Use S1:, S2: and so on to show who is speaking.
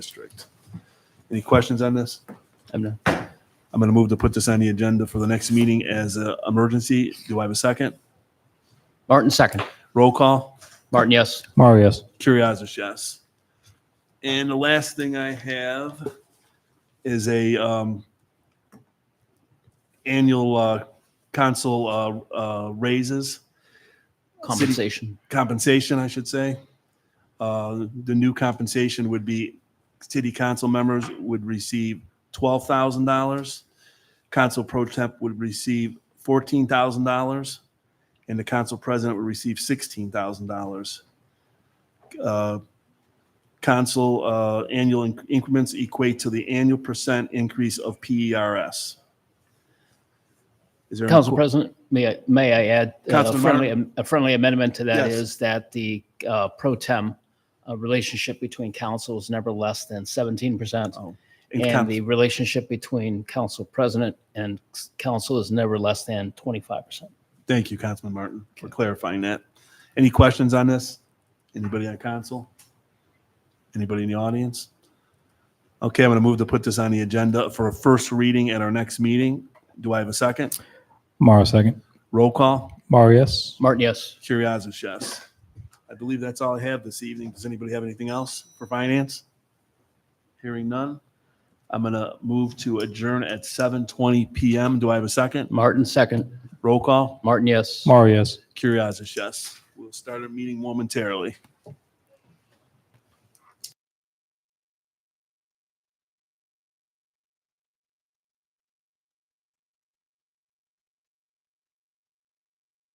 S1: district. Any questions on this?
S2: I'm done.
S1: I'm going to move to put this on the agenda for the next meeting as an emergency. Do I have a second?
S2: Martin, second.
S1: Roll call.
S2: Martin, yes.
S3: Mario, yes.
S1: Curiosis, yes. And the last thing I have is a um, annual uh, council uh, uh, raises.
S2: Compensation.
S1: compensation, I should say. Uh, The new compensation would be city council members would receive twelve thousand dollars. Council pro temp would receive fourteen thousand dollars, and the council president would receive sixteen thousand dollars. Uh, Council uh, annual in- increments equate to the annual percent increase of PERS. Is there any
S2: Council
S1: que-
S2: President, may I, may I add uh, a
S1: Councilman
S2: friendly, a friendly amendment to that
S1: Yes.
S2: is that the uh, pro tem uh, relationship between council is never less than 17%.
S1: in
S2: And
S1: council-
S2: the relationship between council president and s- council is never less than 25%.
S1: Thank you, Councilman Martin, for clarifying that. Any questions on this? Anybody on council? Anybody in the audience? Okay, I'm going to move to put this on the agenda for a first reading at our next meeting. Do I have a second?
S3: Mario, second.
S1: Roll call.
S3: Mario, yes.
S2: Martin, yes.
S1: Curriasis, yes. I believe that's all I have this evening. Does anybody have anything else for finance? Hearing none. I'm going to move to adjourn at 7:20 PM. Do I have a second?
S2: Martin, second.
S1: Roll call.
S2: Martin, yes.
S3: Mario, yes.
S1: Curriasis, yes. We'll start our meeting momentarily.